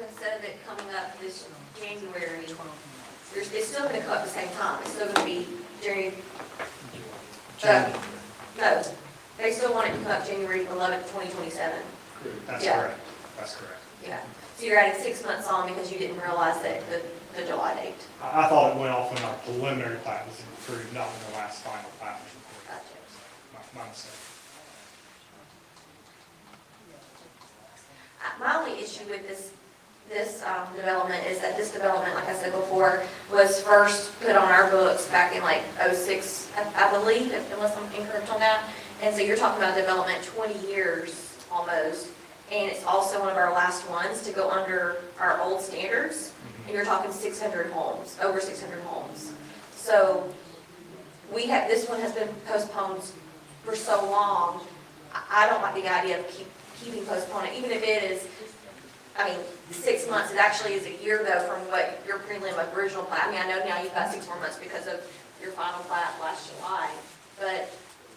instead of it coming up this January, there's- it's still gonna come up at the same time, it's still gonna be January, January. no, they still want it to come up January eleventh, twenty twenty-seven. That's Yeah. correct, that's correct. Yeah, so you're adding six months on because you didn't realize that, the, the July date. I, I thought it went off when our preliminary plat was approved, not when the last final plat was Gotcha. approved. My, my mistake. Uh, My only issue with this, this um, development is that this development, like I said before, was first put on our books back in like '06, I I believe, if- unless I'm incorrect on that. And so you're talking about development 20 years almost, and it's also one of our last ones to go under our old standards. Mm-hmm. And you're talking 600 homes, over 600 homes. So we have, this one has been postponed for so long. I I don't like the idea of keep, keeping postponing, even if it is, I mean, six months, it actually is a year though from what your prelim original plat. I mean, I know now you've got six more months because of your final plat last July, but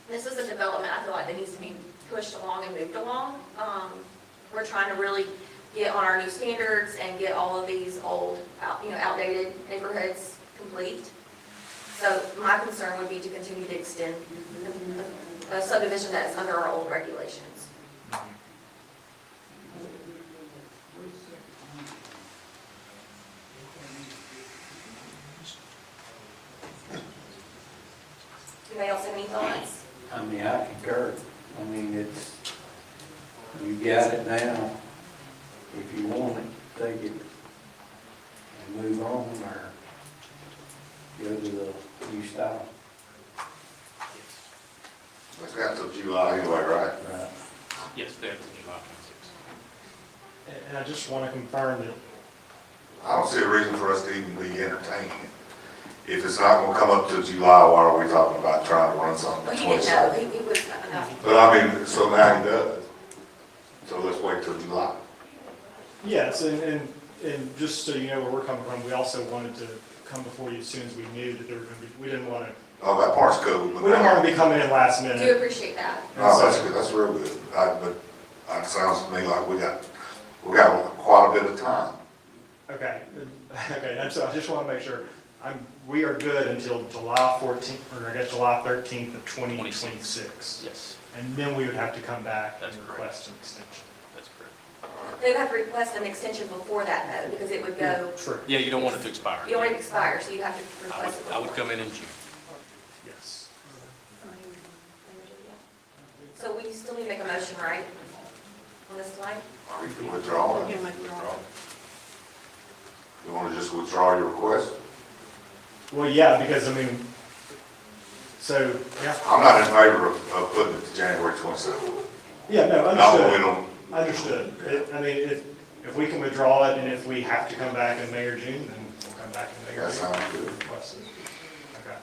this is a development I feel like that needs to be pushed along and moved along. Um, we're trying to really get on our new standards and get all of these old, out- you know, outdated neighborhoods complete. So my concern would be to continue to extend a subdivision that is under our old regulations. Anybody else have any thoughts? I mean, I concur. I mean, it's, you got it now. If you want it, take it and move on or go to the new style. It's got till July anyway, right? Right. Yes, they have to be July twenty-sixth. And- And I just want to confirm that I don't see a reason for us to even be entertaining it. If it's not gonna come up till July, why are we talking about trying to run something Well, at he didn't know, twenty-seven? he, he was, uh, no. But I mean, so now he does. So let's wait till July. Yes, and, and, and just so you know where we're coming from, we also wanted to come before you as soon as we knew that there were gonna be, we didn't wanna, Oh, that part's cool, we but didn't wanna now, be coming in last I do minute. appreciate that. oh, that's good, that's real good. I, but, uh, it sounds to me like we got, we got quite a bit of time. Okay, okay, that's, I just wanna make sure, I'm, we are good until July fourteenth, or I guess July thirteenth of twenty twenty-six. Yes, And then we would have to come back and That's correct. request an extension. that's correct. They would have to request an extension before that though, because it would go, True, Yeah, you don't want it to expire. you don't want it to expire, so you have to I would, request it. I would before. come in in June. yes. So we still need to make a motion, right? On this slide? Or you can withdraw it. You wanna just withdraw your request? Well, yeah, because I mean, so, yeah, I'm not in favor of, of putting it to January twenty-seven. yeah, no, Not understood. when we don't Understood. It- I mean, if, if we can withdraw it and if we have to come back in May or June, then we'll come back in May or That June. sounds good, Request it. Okay,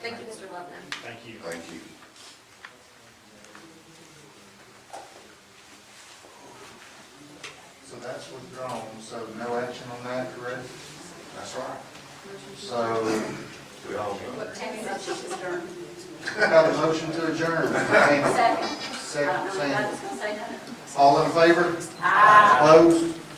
Thank you, Mr. Levin. thank you. thank you. So that's withdrawn, so no action on that, correct? That's right. So, We all What, take a motion, Mr. got a motion to adjourn. Second, Second. I don't know what I Second. was gonna say. All in favor? Ah. Opposed?